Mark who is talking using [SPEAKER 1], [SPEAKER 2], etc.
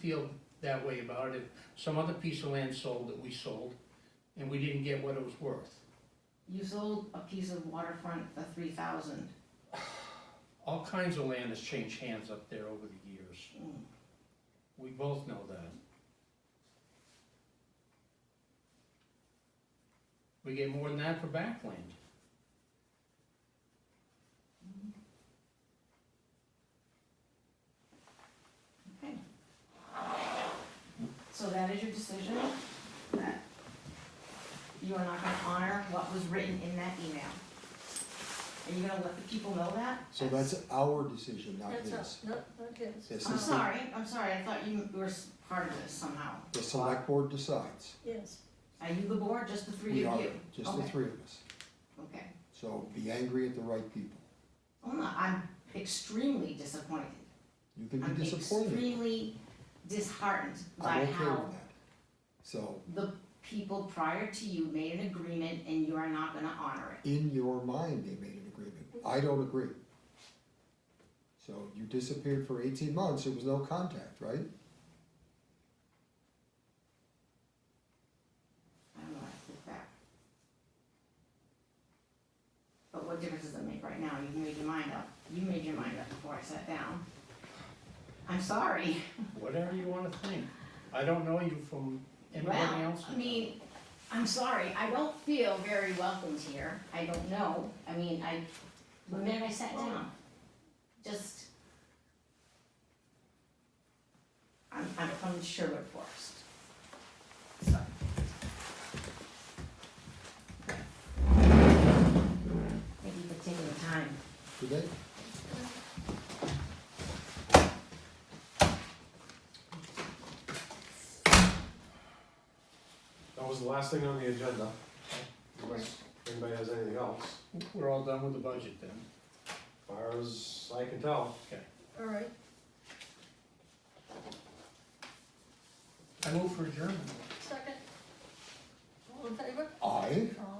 [SPEAKER 1] feel that way about it. If Some other piece of land sold that we sold, and we didn't get what it was worth.
[SPEAKER 2] You sold a piece of waterfront for three thousand.
[SPEAKER 1] All kinds of land has changed hands up there over the years.
[SPEAKER 2] Hmm.
[SPEAKER 1] We both know that. We get more than that for backland.
[SPEAKER 2] Okay. So that is your decision, that you are not gonna honor what was written in that email. Are you gonna let the people know that?
[SPEAKER 3] So that's our decision, not
[SPEAKER 4] That's
[SPEAKER 3] his.
[SPEAKER 4] not, not, not his.
[SPEAKER 3] This
[SPEAKER 2] I'm
[SPEAKER 3] is the,
[SPEAKER 2] sorry, I'm sorry, I thought you were s- part of this somehow.
[SPEAKER 3] the select board decides.
[SPEAKER 4] Yes,
[SPEAKER 2] Are you the board, just the three
[SPEAKER 3] We
[SPEAKER 2] of
[SPEAKER 3] are,
[SPEAKER 2] you?
[SPEAKER 3] just the
[SPEAKER 2] Okay.
[SPEAKER 3] three of us.
[SPEAKER 2] Okay,
[SPEAKER 3] So be angry at the right people.
[SPEAKER 2] I'm not, I'm extremely disappointed.
[SPEAKER 3] You can be
[SPEAKER 2] I'm
[SPEAKER 3] disappointed.
[SPEAKER 2] extremely disheartened
[SPEAKER 3] I'm
[SPEAKER 2] by
[SPEAKER 3] okay with
[SPEAKER 2] how
[SPEAKER 3] that. So
[SPEAKER 2] the people prior to you made an agreement and you are not gonna honor it.
[SPEAKER 3] in your mind, they made an agreement. I don't agree. So you disappeared for eighteen months, there was no contact, right?
[SPEAKER 2] I don't know how to take that. But what difference does it make right now? You've made your mind up. You made your mind up before I sat down. I'm sorry.
[SPEAKER 1] Whatever you wanna think. I don't know you from anybody
[SPEAKER 2] Well,
[SPEAKER 1] else.
[SPEAKER 2] I mean, I'm sorry, I don't feel very welcomed here, I don't know, I mean, I, the minute I sat down, just. I'm, I'm from Sherwood Forest. So. Thank you for taking the time.
[SPEAKER 3] Did they?
[SPEAKER 5] That was the last thing on the agenda. Unless anybody has anything else,
[SPEAKER 1] We're all done with the budget then.
[SPEAKER 5] far as I can tell.
[SPEAKER 4] all right.
[SPEAKER 1] I move for adjournment.
[SPEAKER 4] Second. All in favor?
[SPEAKER 3] I,
[SPEAKER 4] Aye.